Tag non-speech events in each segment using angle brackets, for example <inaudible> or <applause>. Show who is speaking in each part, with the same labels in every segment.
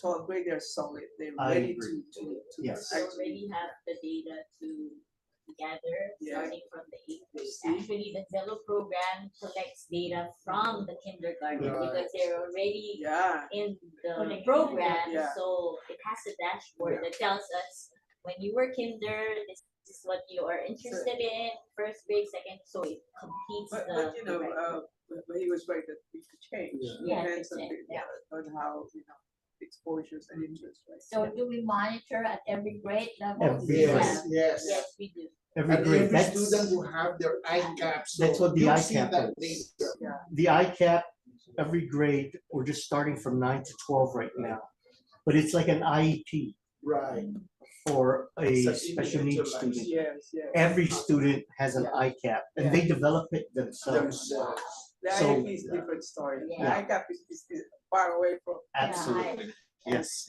Speaker 1: to a grade, they're solid, they're
Speaker 2: I
Speaker 1: ready to,
Speaker 2: agree.
Speaker 1: to, to.
Speaker 2: Yes.
Speaker 3: We
Speaker 1: actually-
Speaker 3: already have the data to gather,
Speaker 1: Yeah.
Speaker 3: starting from the eighth grade.
Speaker 1: See?
Speaker 3: Actually, the Zello program collects data from the kindergarten
Speaker 2: Right.
Speaker 3: because they're already
Speaker 1: Yeah,
Speaker 3: in the
Speaker 4: Connected.
Speaker 3: program,
Speaker 1: Yeah.
Speaker 3: so it has a dashboard that tells us when you were kinder, this is what you are interested in, first grade, second, so it completes
Speaker 1: but,
Speaker 3: the.
Speaker 1: but you know,
Speaker 3: correct-
Speaker 1: uh, but but he was right that we could change.
Speaker 2: Yeah.
Speaker 3: Yeah,
Speaker 1: Depends on,
Speaker 3: could change,
Speaker 1: the- on how, you know, exposures and
Speaker 2: Mm-hmm.
Speaker 1: interest, right?
Speaker 4: So do we monitor at every grade level?
Speaker 2: Every
Speaker 3: Yeah.
Speaker 2: grade.
Speaker 5: Yes, yes.
Speaker 3: Yes, we do.
Speaker 2: Every
Speaker 5: And
Speaker 2: grade,
Speaker 5: every
Speaker 2: that's,
Speaker 5: student will have their ICAP, so
Speaker 2: that's what the
Speaker 5: you'll see
Speaker 2: ICAP
Speaker 5: that
Speaker 2: is.
Speaker 5: data.
Speaker 2: the ICAP, every grade, we're just starting from nine to twelve right now. But it's like an IEP
Speaker 5: Right,
Speaker 2: for a
Speaker 5: Such
Speaker 2: special needs
Speaker 5: individualized.
Speaker 2: student.
Speaker 1: Yes, yes.
Speaker 2: Every student has an ICAP and they develop it themselves.
Speaker 5: themselves.
Speaker 1: The
Speaker 2: So-
Speaker 1: IEP is different story. The
Speaker 3: Yeah.
Speaker 1: ICAP is, is, is far away from.
Speaker 2: Absolutely, yes.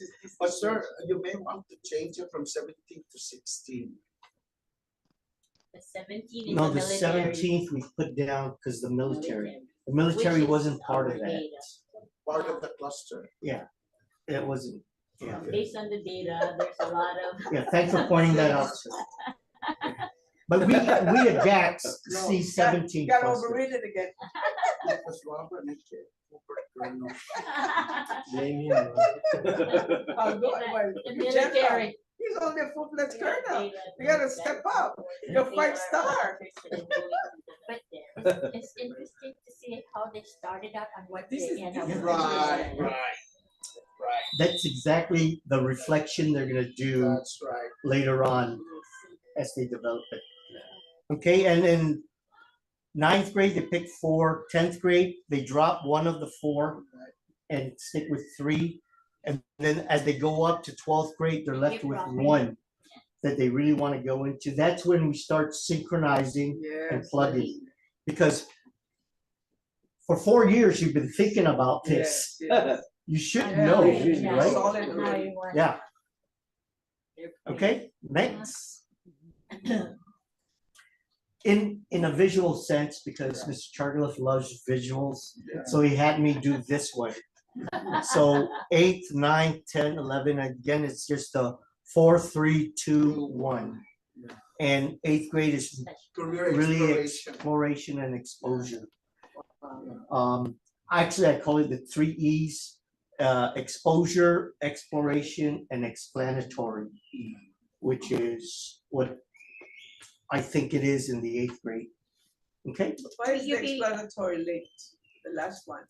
Speaker 1: It's- it's-
Speaker 5: But sir, you may want to change it from seventeen to sixteen.
Speaker 3: The seventeen in the
Speaker 2: No, the
Speaker 3: military.
Speaker 2: seventeenth we put down because the military,
Speaker 3: military.
Speaker 2: the military
Speaker 3: Which is
Speaker 2: wasn't part of
Speaker 3: our
Speaker 2: that.
Speaker 3: data.
Speaker 5: part of the cluster.
Speaker 2: It wasn't, yeah.
Speaker 3: Based on the data, there's a lot
Speaker 1: <laughs>
Speaker 3: of.
Speaker 2: Yeah, thanks for pointing that out.
Speaker 3: <laughs>
Speaker 2: sir. But we, we adapt
Speaker 1: No,
Speaker 2: C
Speaker 1: You
Speaker 2: seventeen
Speaker 1: got
Speaker 2: cluster.
Speaker 1: overrated
Speaker 3: <laughs>
Speaker 1: again.
Speaker 5: Because Robert and Jay Cooper Colonel.
Speaker 1: Oh, go
Speaker 3: Yeah,
Speaker 1: away.
Speaker 3: The
Speaker 1: You general.
Speaker 3: military.
Speaker 1: He's on the full-fledged colonel.
Speaker 3: data
Speaker 1: You gotta
Speaker 3: knows that
Speaker 1: step up.
Speaker 3: people
Speaker 1: You're
Speaker 3: are
Speaker 1: five star.
Speaker 3: interested
Speaker 1: <laughs>
Speaker 3: in going to the
Speaker 4: But
Speaker 3: military.
Speaker 4: It's interesting to see how they started out and what
Speaker 1: This is-
Speaker 4: they end up.
Speaker 1: this
Speaker 4: with.
Speaker 1: is-
Speaker 5: Right, right, right,
Speaker 2: That's exactly the reflection they're gonna do
Speaker 5: that's right.
Speaker 2: later on as they develop it. Okay, and then ninth grade, they pick four. Tenth grade, they drop one of the four and stick with three. And then as they go up to twelfth grade, they're left
Speaker 4: Keep
Speaker 2: with
Speaker 4: dropping.
Speaker 2: one that they really want to go into. That's when we start synchronizing and
Speaker 1: Yes.
Speaker 2: plugging. Because for four years, you've been thinking about
Speaker 1: Yes,
Speaker 2: this.
Speaker 1: yes.
Speaker 2: You should
Speaker 4: And
Speaker 2: know,
Speaker 4: how
Speaker 1: you
Speaker 4: they
Speaker 1: should,
Speaker 4: adjust
Speaker 1: right?
Speaker 4: and how you want-
Speaker 2: Um, Yeah,
Speaker 3: They're pretty-
Speaker 2: okay, next. In, in a visual sense, because Mr. Chargilif loves visuals,
Speaker 5: Yeah.
Speaker 2: so he had me do this one. So eight, nine, ten, eleven, again, it's just a four, three, two, one.
Speaker 5: Yeah.
Speaker 2: And eighth grade is
Speaker 5: Career
Speaker 2: really
Speaker 5: exploration.
Speaker 2: exploration and exposure.
Speaker 1: Um,
Speaker 2: Um, actually, I call it the three E's, uh, exposure, exploration, and explanatory, E, which is what I think it is in the eighth grade. Okay,
Speaker 1: Why is
Speaker 4: Will you
Speaker 1: the
Speaker 4: be-
Speaker 1: explanatory linked, the last one?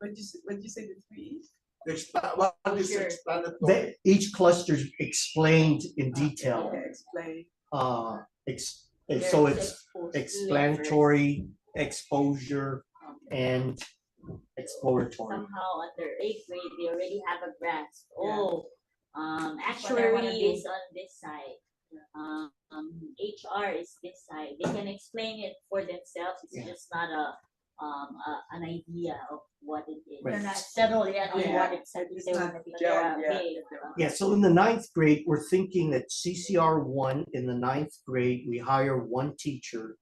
Speaker 1: What you, s- what you say, the three E's?
Speaker 5: Expla- What is
Speaker 3: Sure.
Speaker 5: explanatory?
Speaker 2: they, each cluster's explained in detail.
Speaker 1: Okay, explain.
Speaker 2: Uh, ex, and so it's explanatory, exposure,
Speaker 4: Um,
Speaker 2: and exploratory.
Speaker 3: Somehow under eighth grade, they already have a grasp,
Speaker 1: Yeah.
Speaker 3: oh, um,
Speaker 4: what I wanna
Speaker 3: actuary
Speaker 4: do.
Speaker 3: is on this side. Um, um, HR is this side, they can explain it for themselves,
Speaker 2: Yeah.
Speaker 3: it's just not a, um, a, an idea of what it is.
Speaker 2: Right.
Speaker 4: They're not settled yet on
Speaker 1: Yeah.
Speaker 4: what exactly
Speaker 1: It's
Speaker 4: they
Speaker 1: not
Speaker 4: want to be.
Speaker 1: gelled
Speaker 3: Yeah,
Speaker 1: yet.
Speaker 3: they-
Speaker 2: Yeah, so in the ninth grade, we're thinking that CCR one, in the ninth grade, we hire one teacher.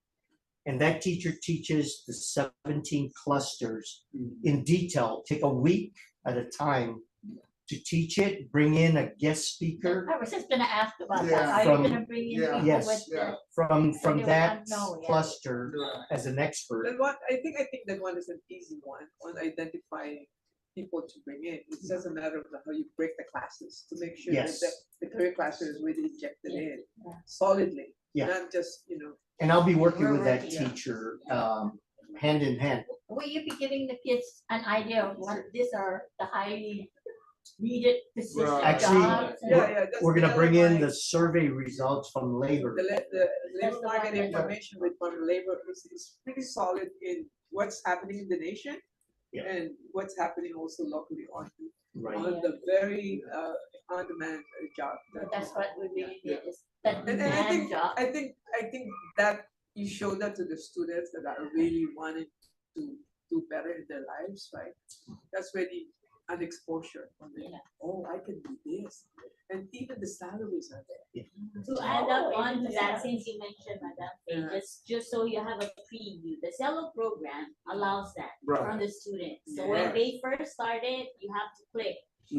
Speaker 2: And that teacher teaches the seventeen clusters in detail, take a week at a time to teach it, bring in a guest speaker
Speaker 4: I was just gonna ask about that,
Speaker 5: Yeah.
Speaker 4: how
Speaker 2: From-
Speaker 4: you're gonna bring in
Speaker 5: yeah.
Speaker 4: people
Speaker 2: Yes.
Speaker 4: with
Speaker 5: Yeah.
Speaker 4: the,
Speaker 2: from, from
Speaker 4: they will
Speaker 2: that
Speaker 4: not know yet.
Speaker 2: cluster
Speaker 5: Right.
Speaker 2: as an expert.
Speaker 1: That one, I think, I think that one is an easy one, on identifying people to bring in. It's just a matter of how you break the classes to make sure that
Speaker 2: Yes.
Speaker 1: the, the career classes is really injected
Speaker 3: Yeah.
Speaker 1: in
Speaker 4: Yeah.
Speaker 1: solidly.
Speaker 2: Yeah.
Speaker 1: Not just, you know,
Speaker 2: And I'll be working
Speaker 3: We're
Speaker 2: with that
Speaker 3: working on-
Speaker 2: teacher, um, hand in hand.
Speaker 4: will you be giving the kids an idea of what these are the highly needed positions,
Speaker 5: Right.
Speaker 4: jobs?
Speaker 2: Actually,
Speaker 4: and-
Speaker 1: yeah, yeah. that's
Speaker 2: We're
Speaker 1: the
Speaker 2: gonna
Speaker 1: other
Speaker 2: bring in
Speaker 1: one.
Speaker 2: the survey results from labor.
Speaker 1: The, la- the labor
Speaker 4: the
Speaker 1: market
Speaker 4: one that-
Speaker 1: information with modern labor is, is pretty solid in what's happening in the nation.
Speaker 2: Yeah.
Speaker 1: And what's happening also locally on,
Speaker 2: Right,
Speaker 1: on the very, uh, on-demand uh, job.
Speaker 4: But That's what we really
Speaker 5: Yeah.
Speaker 4: need is that
Speaker 2: And- and
Speaker 1: I
Speaker 4: demand
Speaker 1: think-
Speaker 4: job.
Speaker 1: I think, I think that you show that to the students that are really wanting to do better in their lives, right? That's really an exposure for them.
Speaker 3: Yeah.
Speaker 1: Oh, I can do this. And even the salaries are there.
Speaker 3: To add up
Speaker 4: Oh,
Speaker 3: on to that,
Speaker 4: yeah.
Speaker 3: since you mentioned Madam
Speaker 1: Yeah.
Speaker 3: Faye, just, just so you have a preview, the Zello program allows that
Speaker 5: Right.
Speaker 3: from the students. So when
Speaker 1: Yeah.
Speaker 3: they first started, you have to click